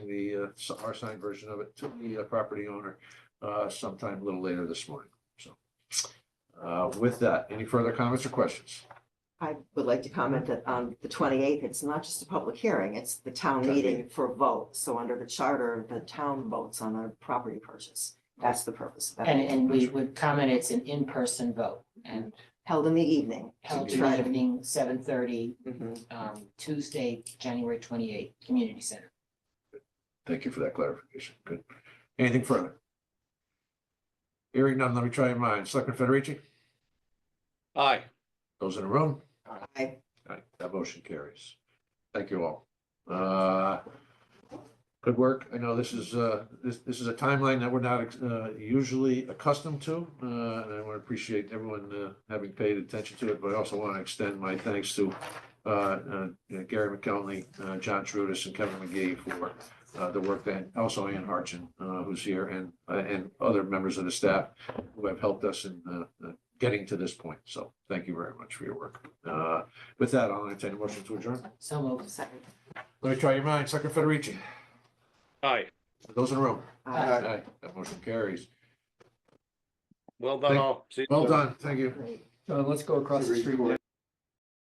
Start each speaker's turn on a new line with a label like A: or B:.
A: a, uh, our signed version of it to the uh, property owner uh, sometime a little later this morning, so. Uh, With that, any further comments or questions?
B: I would like to comment that on the twenty-eighth, it's not just a public hearing, it's the town
A: Town meeting.
B: meeting for vote. So under the charter, the town votes on a property purchase. That's the purpose. of that.
C: And, and we would comment it's an in-person vote and
B: Held in the evening.
C: held
B: To
C: in the
B: try to-
C: evening, seven thirty,
B: Mhm.
C: um, Tuesday, January twenty-eighth, Community Center.
A: Thank you for that clarification. Good. Anything further? Hearing none, let me try your minds. Selectman Federici,
D: Aye.
A: those in the room?
B: I,
A: Alright, that motion carries. Thank you all. Uh, Good work. I know this is, uh, this, this is a timeline that we're not uh, usually accustomed to. uh, And I want to appreciate everyone uh, having paid attention to it, but I also want to extend my thanks to uh, uh, Gary McKelney, uh, John Trudis, and Kevin McGee for uh, the work that, also Ann Harchin, uh, who's here, and, and other members of the staff who have helped us in uh, uh, getting to this point. So thank you very much for your work. Uh, with that, I'll entertain a motion to adjourn.
C: So moved.
B: second.
A: Let me try your minds. Second Federici,
D: Aye.
A: those in the room?
B: I-
A: Aye. That motion carries.
D: Well done
A: Thank-
D: all. See you
A: Well
D: soon.
A: done. Thank you.
E: John, Uh, let's go across the street.